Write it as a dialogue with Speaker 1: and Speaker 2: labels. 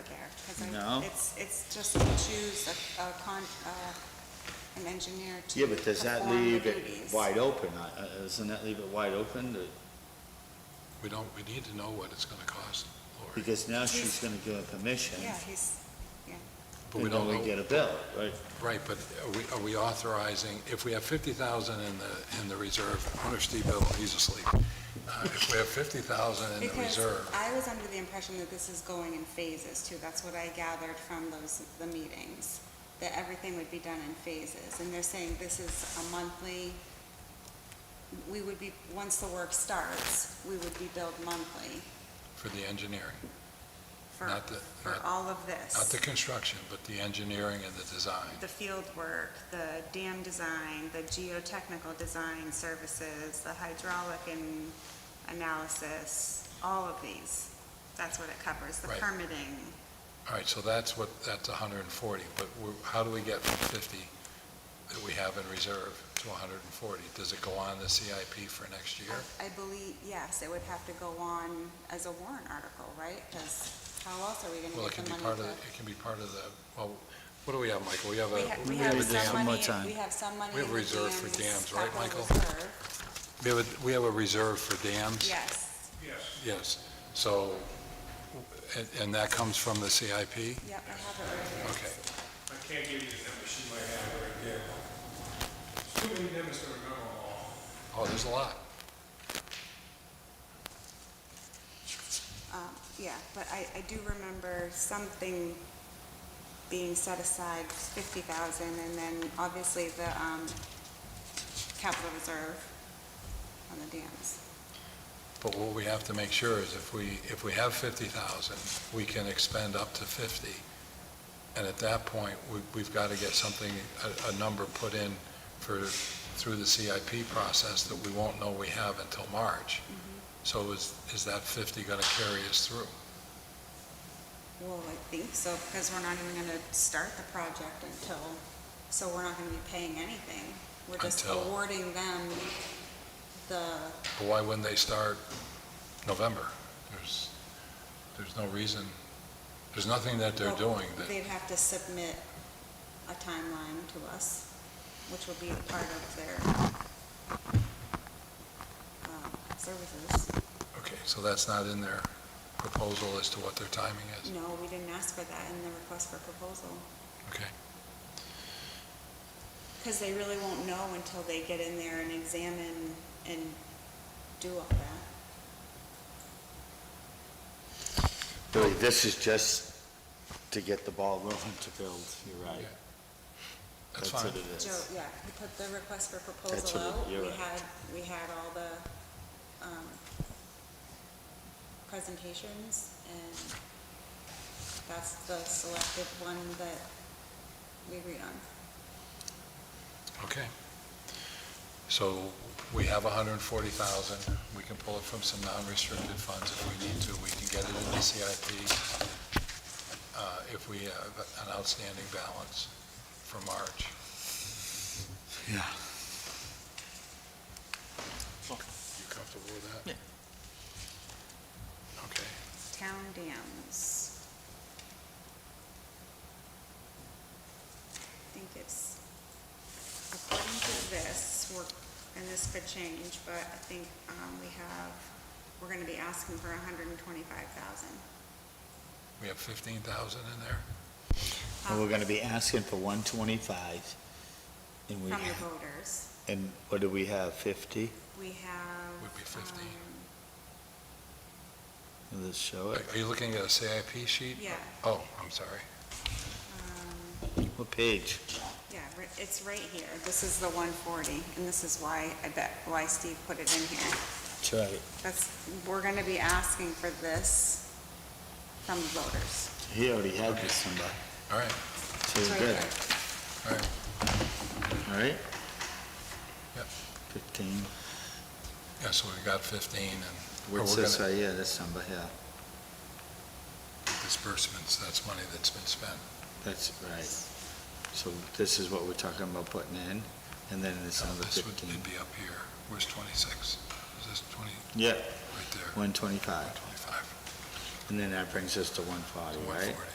Speaker 1: right?
Speaker 2: No.
Speaker 1: It's, it's just to choose a, a con, uh, an engineer to
Speaker 2: Yeah, but does that
Speaker 1: perform the
Speaker 2: leave it
Speaker 1: duties.
Speaker 2: wide open? Uh, uh, Doesn't that leave it wide open? to-
Speaker 3: We don't, we need to know what it's gonna cost, Lori,
Speaker 2: Because now she's gonna give a commission,
Speaker 1: Yeah, he's,
Speaker 3: but we
Speaker 2: and then
Speaker 3: don't
Speaker 2: we
Speaker 3: know,
Speaker 2: get a bill, right?
Speaker 3: right, but are we, are we authorizing, if we have fifty thousand in the, in the reserve, owner Steve Bill, he's asleep. Uh, If we have fifty thousand in the
Speaker 1: because
Speaker 3: reserve,
Speaker 1: I was under the impression that this is going in phases too. That's what I gathered from those, the meetings, that everything would be done in phases. And they're saying this is a monthly, we would be, once the work starts, we would be billed monthly
Speaker 3: for the engineering,
Speaker 1: for,
Speaker 3: not the,
Speaker 1: for
Speaker 3: not,
Speaker 1: all of this.
Speaker 3: not the construction, but the engineering and the design.
Speaker 1: the field work, the dam design, the geotechnical design services, the hydraulic and analysis, all of these. That's what it covers, the
Speaker 3: Right.
Speaker 1: permitting.
Speaker 3: All right, so that's what, that's hundred and forty, but we're, how do we get from fifty that we have in reserve to hundred and forty? Does it go on the CIP for next year?
Speaker 1: I believe, yes, it would have to go on as a warrant article, right? Because how else are we gonna
Speaker 3: Well, it can
Speaker 1: get
Speaker 3: be
Speaker 1: the
Speaker 3: part
Speaker 1: money
Speaker 3: of,
Speaker 1: to?
Speaker 3: it can be part of the, well, what do we have, Michael? We have
Speaker 1: We ha-
Speaker 3: a,
Speaker 1: We
Speaker 2: have
Speaker 1: have
Speaker 2: a dam. One
Speaker 1: some
Speaker 2: more
Speaker 1: money,
Speaker 2: time.
Speaker 1: we have some money
Speaker 3: We have
Speaker 1: in the
Speaker 3: reserve for
Speaker 1: dams
Speaker 3: dams, right,
Speaker 1: capital
Speaker 3: Michael?
Speaker 1: reserve.
Speaker 3: we have a, we have a reserve for dams?
Speaker 1: Yes,
Speaker 3: Yes, so, and, and that comes from the CIP?
Speaker 1: yep, I have it right here.
Speaker 3: Okay,
Speaker 4: I can't give you the number, she might have it right there. Too many numbers to remember all.
Speaker 3: oh, there's a lot.
Speaker 1: Um, Yeah, but I, I do remember something being set aside, fifty thousand, and then obviously the, um, capital reserve on the dams.
Speaker 3: But what we have to make sure is if we, if we have fifty thousand, we can expend up to fifty. And at that point, we, we've got to get something, a, a number put in for, through the CIP process that we won't know we have until March. So is, is that fifty going to carry us through?
Speaker 1: Well, I think so, because we're not even gonna start the project until, so we're not gonna be paying anything. We're just
Speaker 3: Until-
Speaker 1: awarding them the,
Speaker 3: But why wouldn't they start November? There's, there's no reason, there's nothing that they're
Speaker 1: Well,
Speaker 3: doing that,
Speaker 1: they'd have to submit a timeline to us, which will be part of their um, services.
Speaker 3: okay, so that's not in their proposal as to what their timing is?
Speaker 1: No, we didn't ask for that in the request for proposal,
Speaker 3: Okay.
Speaker 1: because they really won't know until they get in there and examine and do all that.
Speaker 2: Really, this is just to get the ball rolling to build, you're right.
Speaker 3: Yeah. That's fine.
Speaker 2: what it
Speaker 1: Joe,
Speaker 2: is.
Speaker 1: yeah, we put the request for
Speaker 2: That's
Speaker 1: proposal
Speaker 2: what it-
Speaker 1: out,
Speaker 2: you're
Speaker 1: we
Speaker 2: right.
Speaker 1: had, we had all the, um, presentations, and that's the selected one that we agreed on.
Speaker 3: Okay. So we have 140,000. We can pull it from some non-restricted funds if we need to. We can get it in the CIP uh, if we have an outstanding balance for March.
Speaker 2: Yeah.
Speaker 3: You comfortable with that? Yeah. Okay.
Speaker 1: Town dams. I think it's, according to this, we're, and this could change, but I think, um, we have, we're gonna be asking for hundred and twenty-five thousand.
Speaker 3: We have 15,000 in there?
Speaker 2: And we're gonna be asking for one twenty-five, and we,
Speaker 1: From the
Speaker 2: ha-
Speaker 1: voters.
Speaker 2: and what do we have, fifty?
Speaker 1: We have.
Speaker 3: Would be 15.
Speaker 1: um,
Speaker 2: Let's show it.
Speaker 3: Are you looking at a CIP sheet?
Speaker 1: Yeah,
Speaker 3: Oh, I'm sorry.
Speaker 1: um,
Speaker 2: What page?
Speaker 1: yeah, ri- it's right here. This is the one forty, and this is why, I bet, why Steve put it in here.
Speaker 2: That's right.
Speaker 1: That's, we're gonna be asking for this from the voters.
Speaker 2: He already had this number,
Speaker 3: All right,
Speaker 2: so
Speaker 1: It's
Speaker 2: we're
Speaker 1: right
Speaker 2: good,
Speaker 1: there.
Speaker 3: all right.
Speaker 2: all right?
Speaker 3: Yep. Oh,
Speaker 2: Fifteen.
Speaker 3: Yeah, so we've got 15 and. or
Speaker 2: What's
Speaker 3: we're
Speaker 2: this,
Speaker 3: gonna-
Speaker 2: right yeah, this number here,
Speaker 3: Disbursements, that's money that's been spent.
Speaker 2: that's right. So this is what we're talking about putting in, and then it's
Speaker 3: No,
Speaker 2: number
Speaker 3: This would
Speaker 2: fifteen.
Speaker 3: it'd be up here. Where's 26? Is this 20,
Speaker 2: Yeah,
Speaker 3: right there,
Speaker 2: one twenty-five,
Speaker 3: 25,
Speaker 2: and then that brings us to one forty, right?
Speaker 3: 140?